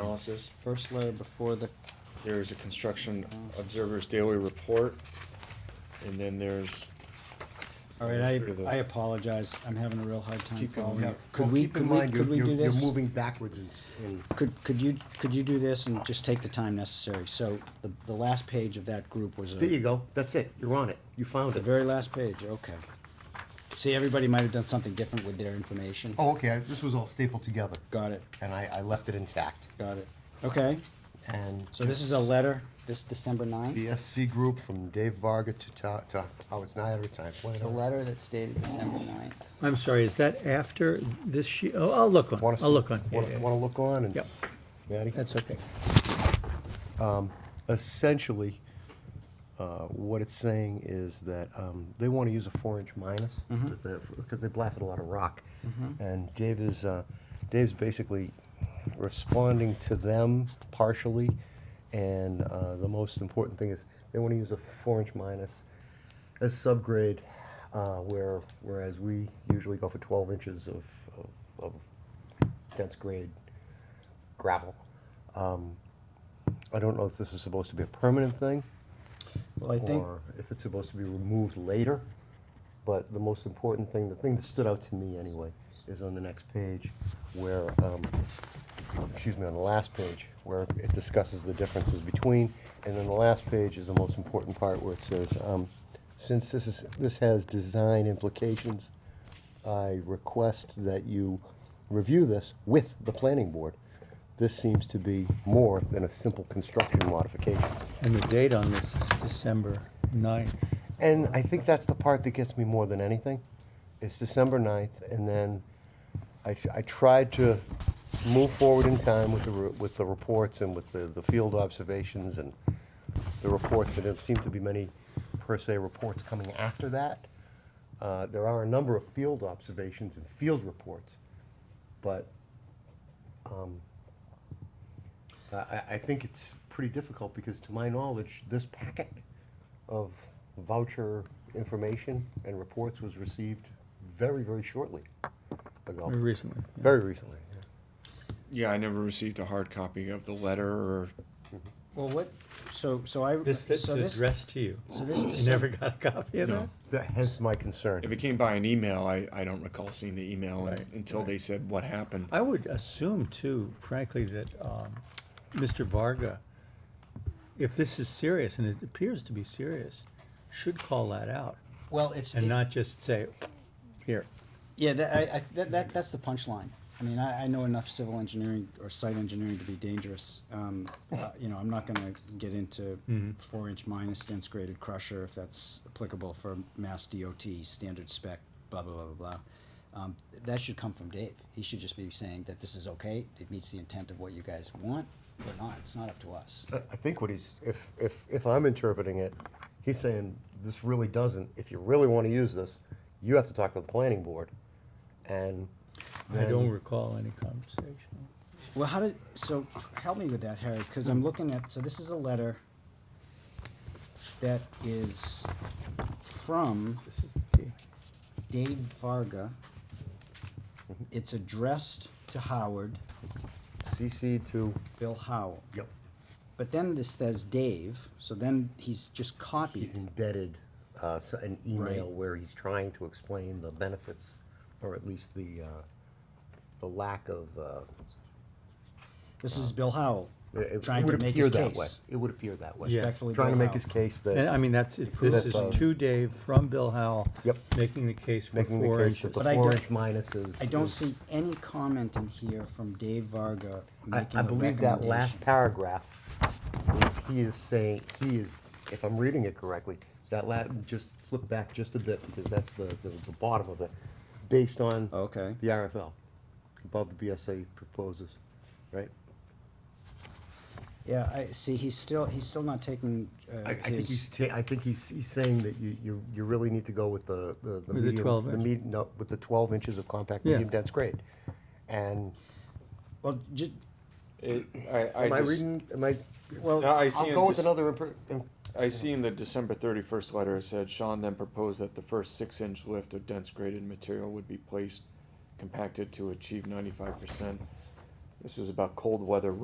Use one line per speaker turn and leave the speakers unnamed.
analysis. First letter before the, there is a construction observer's daily report, and then there's.
All right,
Sort of the-
I, I apologize, I'm having a real hard time
Keep going,
following
yeah.
you. Could
Well,
we,
keep in
could we,
mind
could
you're-
we
you're-
do this?
You're moving backwards in, s- in,
Could, could you, could you do this and just take the time necessary? So the, the last page of that group was a,
there you
the
go, that's it, you're on it, you found it.
very last page, okay. See, everybody might have done something different with their information.
Oh, okay, I- this was all stapled together,
Got it,
and I, I left it intact,
got it. Okay,
and.
so this is a letter, this December ninth?
The SC group from Dave Varga to Ta, to Howard Snyder to Time
It's a
Planner.
letter that's dated December 9th.
I'm sorry, is that after this sheet? Oh, I'll look on,
Wanna
I'll look
see-
on. Yeah,
Wanna,
yeah,
wanna look on and?
Yep.
Matty?
That's okay.
essentially, uh, what it's saying is that um, they want to use a four-inch minus because they blasted a lot of rock, and Dave is uh, Dave's basically responding to them partially, and uh, the most important thing is they want to use a four-inch minus as subgrade, uh, where whereas we usually go for 12 inches of, of, of dense grade gravel. Um, I don't know if this is supposed to be a permanent thing,
Well, I think,
or if it's supposed to be removed later, but the most important thing, the thing that stood out to me anyway, is on the next page, where, um, excuse me, on the last page, where it discusses the differences between, and then the last page is the most important part, where it says, um, since this is, this has design implications, I request that you review this with the planning board. This seems to be more than a simple construction modification.
And the date on this is December 9th.
And I think that's the part that gets me more than anything. It's December 9th, and then I, tr- I tried to move forward in time with the, re- with the reports and with the, the field observations and the reports, and there seem to be many per se reports coming after that. Uh, there are a number of field observations and field reports, but um, I- I, I think it's pretty difficult because to my knowledge, this packet of voucher information and reports was received very, very shortly ago.
Very recently. yeah.
Very recently. yeah.
Yeah, I never received a hard copy of the letter or,
well, what, so, so I,
This, this
so
is
this,
addressed to you.
so this
You never got a copy of
No.
that?
That, hence my
if
concern.
it came by an email, I, I don't recall seeing the email un-
Right,
until they said what happened.
I would assume too, frankly, that um, Mr. Varga, if this is serious, and it appears to be serious, should call that out
well, it's.
and
it-
not just say, here.
Yeah, that, I, I, that, that, that's the punchline. I mean, I, I know enough civil engineering or site engineering to be dangerous. Um, uh, you know, I'm not gonna get into four-inch minus dense graded crusher if that's applicable for mass DOT standard spec, blah, blah, blah, blah, blah. Um, that should come from Dave. He should just be saying that this is okay, it meets the intent of what you guys want, or not, it's not up to us.
I I think what he's, if, if, if I'm interpreting it, he's saying, this really doesn't, if you really want to use this, you have to talk to the planning board. And
I don't
then-
recall any conversation.
Well, how did, so, help me with that, Harry, because I'm looking at, so this is a letter that is from
This is the
Dave Varga.
Mm-hmm.
It's addressed to Howard,
CC to,
Bill Howell.
yep,
But then this says Dave, so then he's just
he's
copied.
embedded uh, s- an
Right.
email where he's trying to explain the benefits, or at least the, uh, the lack of, uh,
This is Bill Howell,
it- it
trying to
would
make
appear
his
that way.
case.
It would appear that way.
Yeah.
Respectfully,
Trying to
Bill
make his
Howell.
case
And I
that,
mean, that's, it- this is
That's, uh,
to Dave from Bill Howell.
Yep.
Making the case for
making the
four
case that
inches.
the
But I
four
don't-
inch minuses.
I don't
is-
see any comment in here from Dave Varga
I,
making
I
a
believe that last
recommendation.
paragraph, is- he is saying, he is, if I'm reading it correctly, that la, just flip back just a bit, because that's the, the the bottom of it, based on
Okay.
the RFL, above the BSA proposes, right?
Yeah, I, see, he's still, he's still not taking, uh,
I, I think he's,
his,
ta- I think he's, he's saying that you, you, you really need to go with the, the.
the
medium-
12
the
inch?
med- No, with the twelve inches of compact
Yeah.
medium dense grade. And,
well, ju-
It, I,
am I
I just,
reading, am I?
well.
No, I see
I'll
him
go with
just-
another, impre- um,
I see in the December thirty-first letter, it said Sean then proposed that the first six-inch lift of dense graded material would be placed compacted to achieve ninety-five percent. This is about cold weather